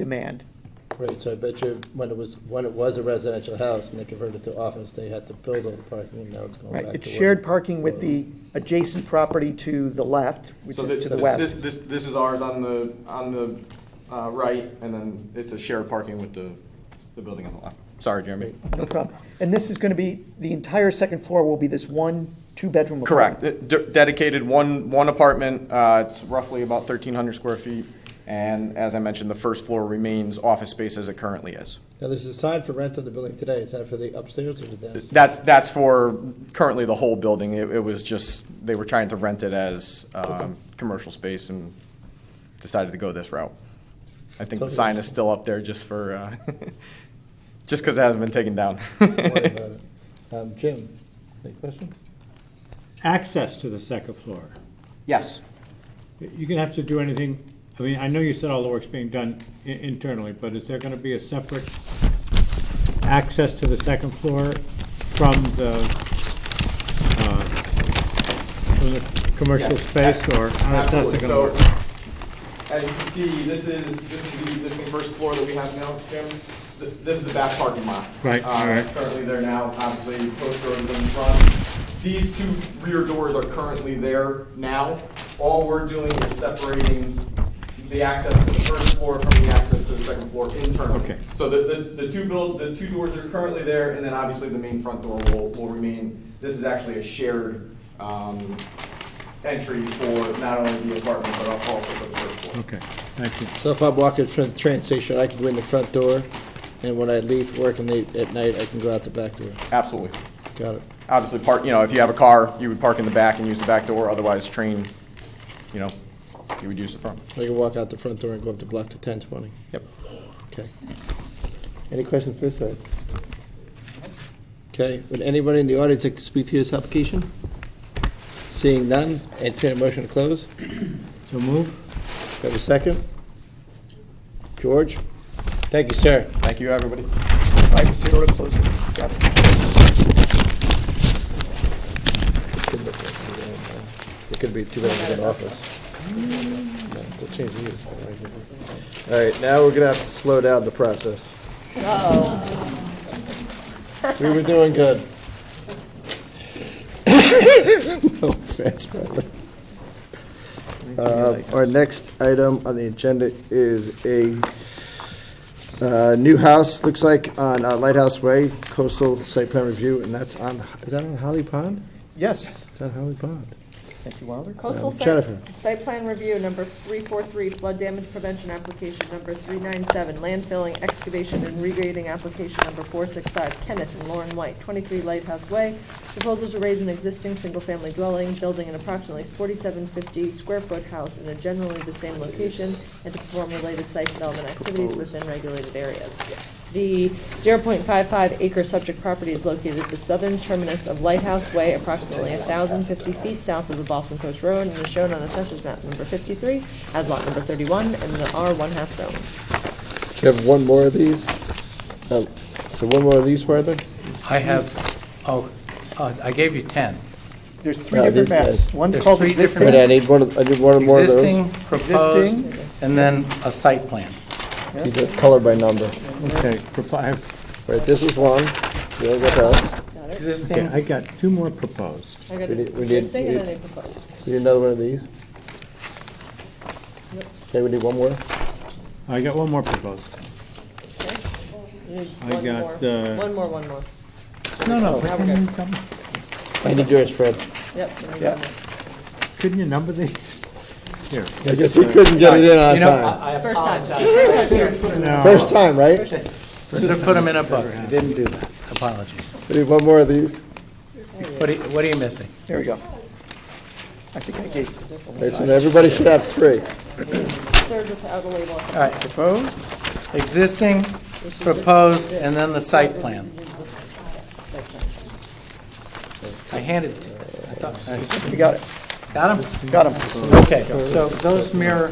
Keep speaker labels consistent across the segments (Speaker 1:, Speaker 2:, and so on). Speaker 1: demand.
Speaker 2: Right, so I bet you when it was, when it was a residential house and they converted it to office, they had to build all the parking and now it's going back
Speaker 1: Right,
Speaker 2: to.
Speaker 1: it's
Speaker 2: what
Speaker 1: shared
Speaker 2: it
Speaker 1: parking with the
Speaker 2: was.
Speaker 1: adjacent property to the left, which
Speaker 3: So
Speaker 1: is
Speaker 3: this,
Speaker 1: to the
Speaker 3: this,
Speaker 1: west.
Speaker 3: this, this is ours on the, on the, uh, right, and then it's a shared parking with the, the building on the left. Sorry, Jeremy.
Speaker 1: No problem. And this is going to be, the entire second floor will be this one, two-bedroom apartment.
Speaker 3: Correct, It- de- dedicated one, one apartment, uh, it's roughly about thirteen hundred square feet, and as I mentioned, the first floor remains office space as it currently is.
Speaker 2: Now, there's a sign for rent on the building today. Is that for the upstairs or the downstairs?
Speaker 3: That's, that's for currently the whole building, it, it was just, they were trying to rent it as, um, commercial space and decided to go this route. I think the sign is still up there just for, uh, just because it hasn't been taken down.
Speaker 2: Don't worry about it. Um, Jim, any questions?
Speaker 4: access to the second floor.
Speaker 3: Yes,
Speaker 4: You're gonna have to do anything, I mean, I know you said all the work's being done i- internally, but is there gonna be a separate access to the second floor from the, uh, from the commercial
Speaker 3: Yes.
Speaker 4: space, or how is
Speaker 3: absolutely,
Speaker 4: that gonna
Speaker 3: so,
Speaker 4: work?
Speaker 3: as you can see, this is, this is the existing first floor that we have now, Jim. Th- This is the back parking lot.
Speaker 4: Right,
Speaker 3: Uh,
Speaker 4: all right.
Speaker 3: It's currently there now, obviously, post road is in front. These two rear doors are currently there now. All we're doing is separating the access to the first floor from the access to the second floor internally.
Speaker 4: Okay.
Speaker 3: So the, the, the two build, the two doors are currently there, and then obviously the main front door will, will remain. This is actually a shared, um, entry for not only the apartment, but also for the first floor.
Speaker 4: Okay, thank you.
Speaker 2: So if I'm walking from the train station, I can go in the front door, and when I leave work and leave at night, I can go out the back door.
Speaker 3: Absolutely.
Speaker 2: Got it.
Speaker 3: Obviously, park, you know, if you have a car, you would park in the back and use the back door, otherwise train, you know, you would use the front.
Speaker 2: I can walk out the front door and go up the block to ten twenty.
Speaker 3: Yep.
Speaker 2: Okay. Any questions for this side? Okay, would anybody in the audience like to speak to this application? Seeing none, entertain a motion to close. Do
Speaker 4: So move?
Speaker 2: I have a second? George? Thank you, sir.
Speaker 3: Thank you, everybody.
Speaker 1: Right, so you're gonna close it. Got it.
Speaker 2: It could be two bedrooms and office. It's a change of use. All right, now we're gonna have to slow down the process. We were doing good. No offense, brother. Uh, Our next item on the agenda is a uh, new house, looks like, on uh, Lighthouse Way, coastal site plan review, and that's on, is that on Holly Pond?
Speaker 1: Yes,
Speaker 2: It's on Holly Pond.
Speaker 1: thank you, Wilder.
Speaker 5: Uh,
Speaker 6: Coastal
Speaker 2: Um,
Speaker 6: site,
Speaker 2: Jennifer.
Speaker 6: site plan review, number three-four-three, flood damage prevention application, number three-nine-seven, landfilling, excavation, and regrading application, number four-six-five, Kenneth and Lauren White, twenty-three Lighthouse Way. Proposal to raise an existing single-family dwelling, building an approximately forty-seven fifty square foot house in a generally the same location, and to perform related site development activities within regulated areas. The 0.55 acre subject property is located at the southern terminus of Lighthouse Way, approximately 1,050 feet south of the Boston Coast Road, and is shown on Assessor's Map number 53 as lot number 31 in the R1 half zone.
Speaker 2: Do you have one more of these? Oh, So one more of these, Martha?
Speaker 5: I have, oh, uh, I gave you 10.
Speaker 1: There's three
Speaker 2: No,
Speaker 1: different
Speaker 2: these guys.
Speaker 1: maps. One's
Speaker 5: There's
Speaker 1: called
Speaker 5: three
Speaker 1: existing.
Speaker 5: different
Speaker 2: Wait, I need one, of- I need one more of
Speaker 5: Existing,
Speaker 2: those.
Speaker 5: proposed,
Speaker 1: Existing.
Speaker 5: and then a site plan.
Speaker 2: That's color by number.
Speaker 4: Okay, propo- I have-
Speaker 2: Right, this is one. We all got that.
Speaker 4: okay,
Speaker 5: Existing,
Speaker 4: I got two more proposed.
Speaker 6: I got
Speaker 2: We did-
Speaker 6: it
Speaker 2: we did-
Speaker 6: existing and
Speaker 2: we-
Speaker 6: then a proposed.
Speaker 2: We need another one of these. Okay, we need one more.
Speaker 4: Oh, I got one more proposed.
Speaker 6: You need
Speaker 4: I
Speaker 6: one
Speaker 4: got,
Speaker 6: more.
Speaker 4: uh,
Speaker 6: One more, one more.
Speaker 4: No,
Speaker 3: Oh,
Speaker 6: Now we're good.
Speaker 4: no,
Speaker 2: I need yours, Fred.
Speaker 6: Yep. we need
Speaker 1: Yeah.
Speaker 6: one more.
Speaker 4: couldn't you number these? Here.
Speaker 2: I guess you couldn't get it in on
Speaker 5: you know, Oh.
Speaker 2: time.
Speaker 5: I I
Speaker 6: First time,
Speaker 5: apologize.
Speaker 6: first time here.
Speaker 2: First time, right?
Speaker 5: Should have put them in a book.
Speaker 2: Didn't do that.
Speaker 5: Apologies.
Speaker 2: We need one more of these.
Speaker 5: What are you- what are you missing?
Speaker 1: There we go. I think I gave
Speaker 2: All right, so now everybody should have three.
Speaker 6: Third without a label.
Speaker 5: All right,
Speaker 1: proposed.
Speaker 5: existing, proposed, and then the site plan. I handed it to you. I thought- I-
Speaker 1: We got it,
Speaker 5: Got them?
Speaker 1: got them.
Speaker 5: Okay, so those mirror,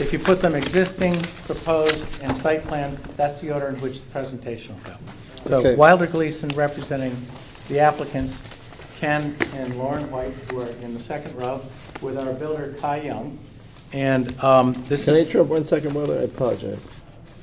Speaker 5: if you put them existing, proposed, and site plan, that's the order in which the presentation will go.
Speaker 2: Okay.
Speaker 5: So Wilder Gleason representing the applicants, Ken and Lauren White, who are in the second row, with our builder Kai Young. And um, this
Speaker 2: Can I
Speaker 5: is,
Speaker 2: interrupt one second, Mother? I apologize.